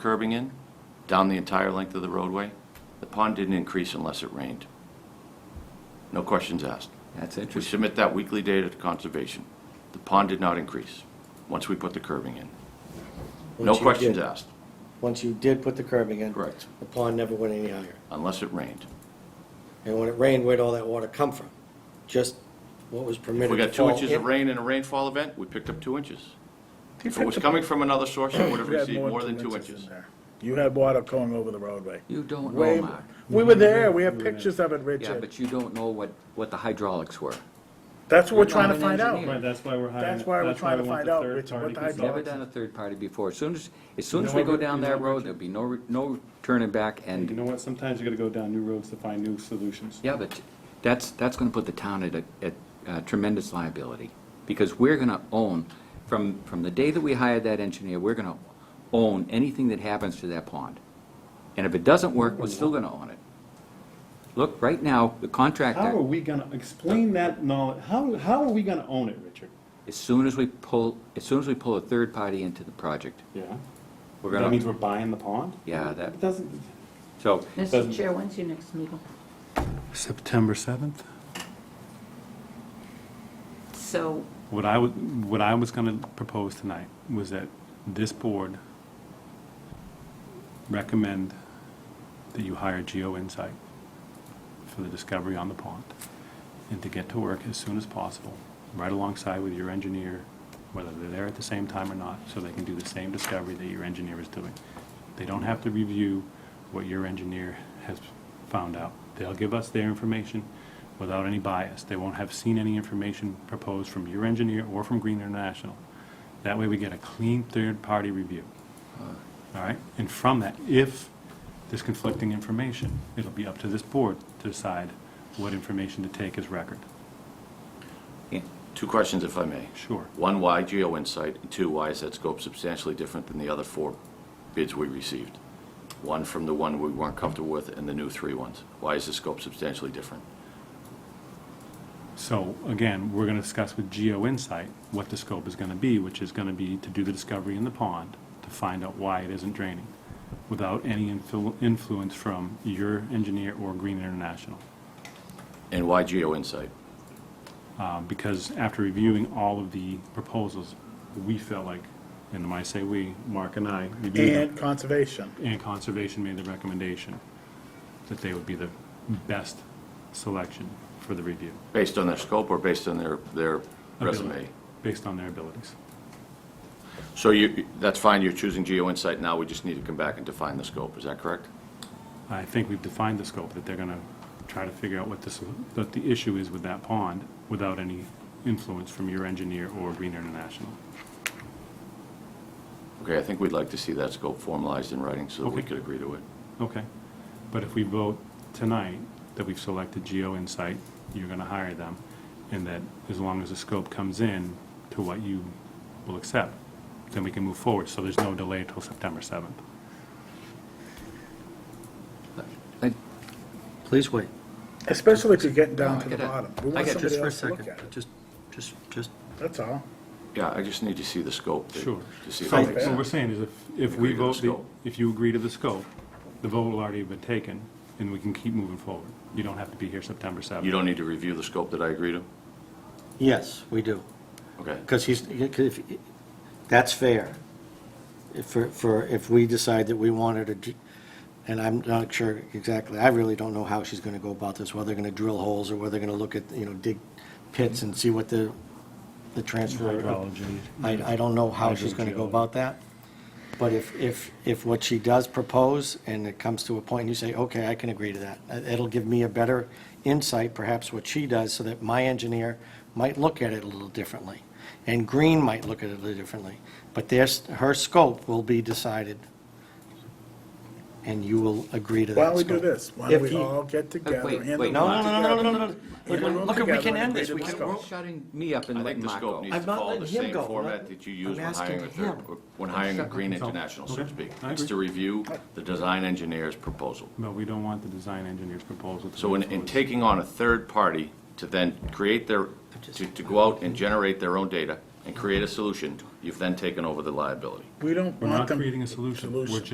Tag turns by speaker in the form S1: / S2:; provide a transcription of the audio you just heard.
S1: curbing in down the entire length of the roadway. The pond didn't increase unless it rained. No questions asked.
S2: That's
S1: We
S2: interesting.
S1: submit that weekly data to conservation. The pond did not increase once we put the curbing in. No
S3: Once you
S1: questions
S3: did-
S1: asked,
S3: Once you did put the curbing in.
S1: Correct.
S3: The pond never went any higher.
S1: unless it rained.
S3: And when it rained, where'd all that water come from? Just what was permitted
S1: If we
S3: to
S1: got two
S3: fall
S1: inches of
S3: in?
S1: rain in a rainfall event, we picked up two inches. If it was coming from another source, it would have
S4: You had
S1: received more than two
S4: in
S1: inches.
S4: there. You had water going over the roadway.
S2: You don't
S4: Way
S2: know,
S4: more.
S2: Mark.
S4: We were there, we have pictures of it,
S2: Oh, Yeah,
S4: Richard.
S2: but you don't know what, what the hydraulics were.
S4: That's what we're
S2: You're
S4: trying
S2: not
S4: to
S2: an
S4: find
S2: engineer.
S4: out.
S5: Right, that's why we're hiring.
S4: Oh. That's why we're trying to
S5: I want
S4: find
S5: the
S4: out,
S5: third
S4: Richard,
S5: party
S4: what the
S5: consultant.
S4: hydraulic-
S2: Never done a third party before. As soon as, as soon
S5: You
S2: as
S5: know
S2: we
S5: what,
S2: go
S5: Rick-
S2: down
S5: you know
S2: that
S5: what,
S2: road,
S5: Richard?
S2: there'll be no, re- no turning back
S5: You know
S2: and,
S5: what, sometimes you gotta go down new roads to find new solutions.
S2: yeah, but that's, that's gonna put the town at, a- at uh, tremendous liability. Because we're gonna own, from, from the day that we hired that engineer, we're gonna own anything that happens to that pond. And if it doesn't work, we're still gonna own it. Look, right now, the
S5: How are
S2: contractor,
S5: we gonna, explain that knowledge, how, how are we gonna own it, Richard?
S2: as soon as we pull, as soon as we pull a third party into the project,
S5: Yeah.
S2: we're
S5: That means
S2: gonna,
S5: we're buying the pond?
S2: Yeah, that-
S5: It doesn't.
S2: so,
S6: Mr. Chair, when's your next meeting?
S5: September seventh?
S6: So,
S5: What I would, what I was gonna propose tonight was that this board recommend that you hire Geo Insight for the discovery on the pond, and to get to work as soon as possible, right alongside with your engineer, whether they're there at the same time or not, so they can do the same discovery that your engineer is doing. They don't have to review what your engineer has found out. They'll give us their information without any bias. They won't have seen any information proposed from your engineer or from Green International. That way, we get a clean third-party review. All right, and from that, if there's conflicting information, it'll be up to this board to decide what information to take as record.
S2: yeah.
S1: Two questions, if I may.
S5: Sure.
S1: One, why Geo Insight? And two, why is that scope substantially different than the other four bids we received? One from the one we weren't comfortable with and the new three ones. Why is the scope substantially different?
S5: So again, we're gonna discuss with Geo Insight what the scope is gonna be, which is gonna be to do the discovery in the pond, to find out why it isn't draining, without any influ- influence from your engineer or Green International.
S1: And why Geo Insight?
S5: um, because after reviewing all of the proposals, we felt like, and when I say we, Mark and I, reviewed
S4: And
S5: them,
S4: conservation.
S5: and Conservation made the recommendation that they would be the best selection for the review.
S1: Based on their scope or based on their, their resume?
S5: Ability, Based on their abilities.
S1: So you, that's fine, you're choosing Geo Insight now, we just need to come back and define the scope, is that correct?
S5: I think we've defined the scope, that they're gonna try to figure out what this, what the issue is with that pond without any influence from your engineer or Green International.
S1: Okay, I think we'd like to see that scope formalized in writing so that we
S5: Okay.
S1: could agree to it.
S5: Okay, but if we vote tonight that we've selected Geo Insight, you're gonna hire them, and that as long as the scope comes in to what you will accept, then we can move forward, so there's no delay until September seventh.
S2: I-
S7: Please wait.
S4: Especially if you're getting
S2: No,
S4: down
S2: I
S4: to the
S2: get it.
S4: bottom.
S2: I
S4: We want
S2: get it.
S4: somebody
S7: Just for a
S4: else to look
S7: second.
S4: at it.
S7: Just, just, just,
S4: That's all.
S1: Yeah, I just need to see the scope. to-
S5: Sure.
S1: To see if
S5: So
S1: it makes
S5: what we're
S1: sense.
S5: saying is if, if
S1: Agree
S5: we
S1: to the
S5: vote, the-
S1: scope.
S5: if you agree to the scope, the vote will already have been taken, and we can keep moving forward. You don't have to be here September seventh.
S1: You don't need to review the scope that I agree to?
S3: Yes, we do.
S1: Okay.
S3: Because he's, 'cause if- that's fair. If, for- for, if we decide that we want her to, dr- and I'm not sure exactly, I really don't know how she's going to go about this, whether they're going to drill holes or whether they're going to look at, you know, dig pits and see what the, the transfer.
S5: Hydrology.
S3: I, I don't know how she's going to go
S5: Hydrogeology.
S3: about that. But if, if, if what she does propose and it comes to a point and you say, okay, I can agree to that, it- it'll give me a better insight, perhaps what she does, so that my engineer might look at it a little differently. And Green might look at it a little differently. But there's, her scope will be decided and you will agree to that
S4: Why don't we
S3: scope.
S4: do this? Why don't
S3: If
S4: we
S3: he-
S4: all get together?
S2: wait,
S4: hand
S2: wait.
S4: them
S3: No,
S4: out
S3: no, no, no, no, no, no, no.
S4: together.
S3: Look,
S4: Hand them
S3: look,
S4: together
S3: we can
S4: and
S3: end
S4: agree
S3: this.
S4: to
S3: We
S4: the
S3: can,
S4: scope.
S2: You're shutting me up
S1: I
S2: and
S1: think
S2: letting
S1: the
S2: Mark
S1: scope
S2: go.
S1: needs to
S3: I'm not
S1: follow the
S3: letting him
S1: same
S3: go.
S1: format that you use
S3: I'm
S1: when hiring a
S3: asking
S1: third,
S3: him.
S1: when hiring a Green
S5: consultant.
S1: International, so to
S5: Okay,
S1: speak.
S5: I
S1: It's to
S5: agree.
S1: review the design engineer's proposal.
S5: But we don't want the design engineer's proposal to.
S1: So in, in
S5: influence-
S1: taking on a third party to then create their, to, to go out and generate their own data and create a solution, you've then taken over the liability.
S4: We don't
S5: We're
S4: want
S5: not
S4: them.
S5: creating a solution, we're